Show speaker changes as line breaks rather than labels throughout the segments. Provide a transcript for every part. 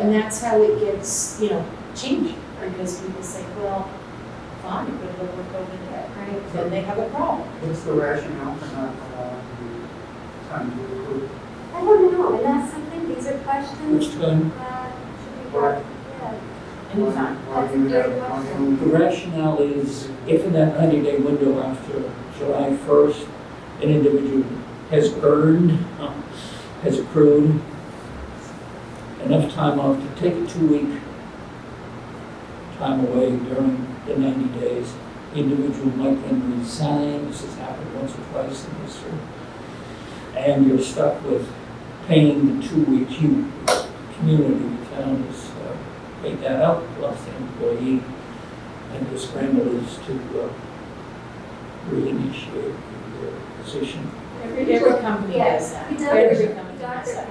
And that's how it gets, you know, changed, because people say, well, fine, but it'll work over there.
Right.
Then they have a problem.
What's the rationale for not allowing the time to approve?
I don't know, and that's something, these are questions
Which time,
that should be brought, yeah.
Anytime.
Why why you have, why you
the rationale is if in that ninety-day window after July first, an individual has earned, uh, has accrued enough time off to take a two-week time away during the ninety days, the individual might then resign, this has happened once or twice in history. And you're stuck with paying the two weeks you, community, the town has uh, paid that out, plus the employee and his grandmother's to uh, reinitiate the position.
Every, every company does that.
Yeah, it does.
Every company
Doctor
does that.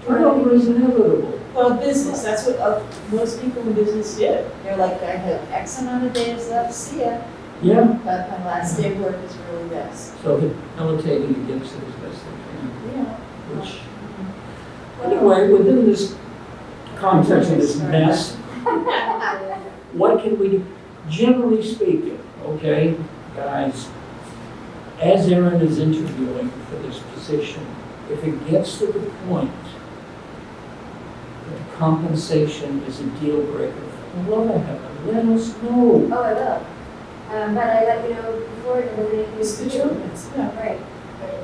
pay.
Turnover is inevitable.
Well, business, that's what, uh, most people in business do. They're like, I have X amount of days left, see ya,
Yeah,
but my last day of work is really this.
so they're militating against it as best they
Yeah.
can, which, anyway, within this context of this mess,
Oh,
what can we do? Generally speaking, okay, guys, as Aaron is interviewing for this position, if it gets to the point that compensation is a deal breaker, for love of heaven, let us know.
Oh, I will. Um, but I let you know before, and then you.
It's the children's, yeah.
Right.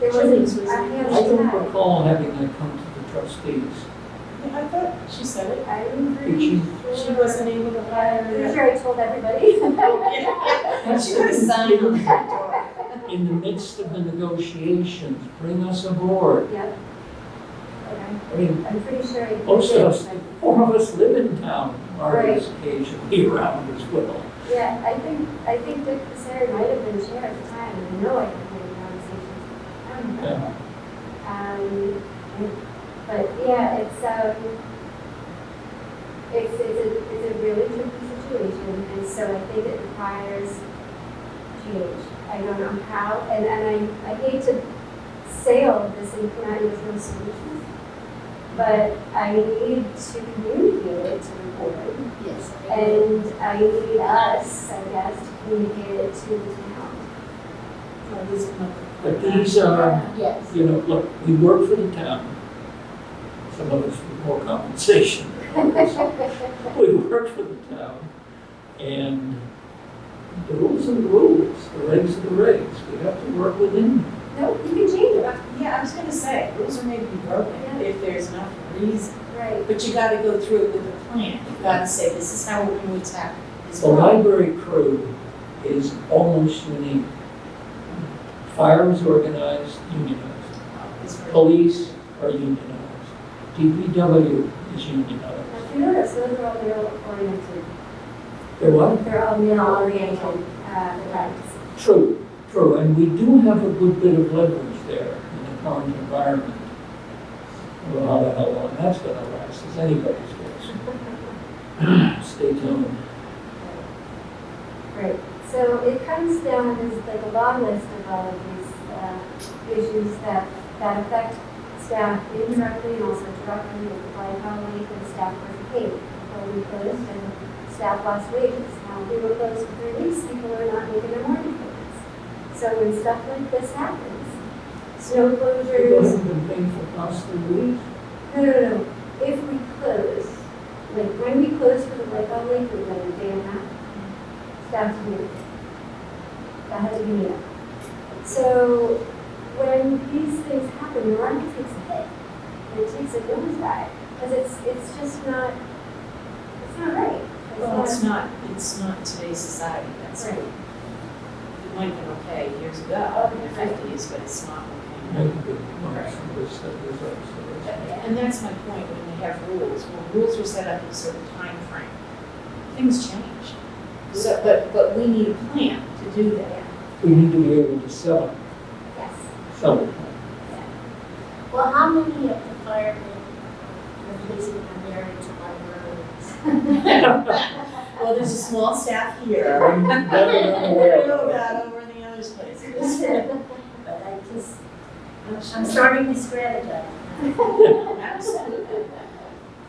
There
Children's
was,
was.
a- I think I
I
was
don't
mad.
recall having that come to the trustees.
Yeah, I thought she said it.
I'm
Did
pretty
she-
sure.
She wasn't able to
Pretty
hire.
sure I told everybody.
She put a sign on the front door.
In the midst of the negotiations, bring us aboard.
Yep. Okay.
I mean,
I'm pretty sure I. did.
most of us, four of us live in town, Marty's occasionally around as well.
Yeah, I think, I think Dick Passeri might have been chair at the time, and I know I had many conversations with him about it. Um, and- but yeah, it's, um, it's, it's a, it's a really tricky situation, and so I think it requires change. I don't know how, and, and I, I hate to say all of this and come out with no solutions, but I need to communicate it to the board.
Yes.
And I need us, I guess, to communicate it to the town.
Oh, this month.
But these are,
Yes.
you know, look, we work for the town. Some of us with more compensation than others. We work for the town, and the rules are the rules, the regs are the regs. We have to work within them.
No, you can change it,
Yeah, I was gonna say, rules are made to be broken if there's enough reason,
right?
but you gotta go through it with a plan. You gotta say, this is how we're gonna attack this
The
problem.
library crew is almost unique. Fire is organized, unionized.
It's for-
Police are unionized. DPW is unionized.
Now, If you notice, those are all male oriented.
They're what?
They're all male oriented, uh, events.
True, true, and we do have a good bit of leverage there in the current environment. Well, how the hell long that's gonna last is anybody's guess. Stay tuned.
Right. So it comes down as like a long list of all of these, uh, issues that, that affect staff indirectly and also directly with the blind colleague and staff was paid. Well, we closed and staff lost wages. Now, we were closed for three weeks, people are not making their morning payments. So when stuff like this happens, snow
They
closures,
haven't been paying for past three weeks.
no, no, no, if we close, like, when we closed for the Lake on Lake, we went a day and a half. Staff to do. That had to be made up. So, when these things happen, the market takes a hit, and it takes a nosedive, because it's, it's just not, it's not right. It's
Well,
not-
it's not, it's not today's society, that's right.
Right.
It might have been okay years ago, in the fifties, but it's not okay. now.
Maybe they want some of this stuff is up, so it's-
And that's my point, when we have rules, when rules were set up in a certain time frame, things change. So, but, but we need a plan to do that.
We need to be able to sell,
Yes.
sell it.
Well, how many of the firemen, the policemen are married to librarians?
Well, there's a small staff here.
Better than aware.
that over in the other places.
But I just, I'm starting to strategize.
Absolutely.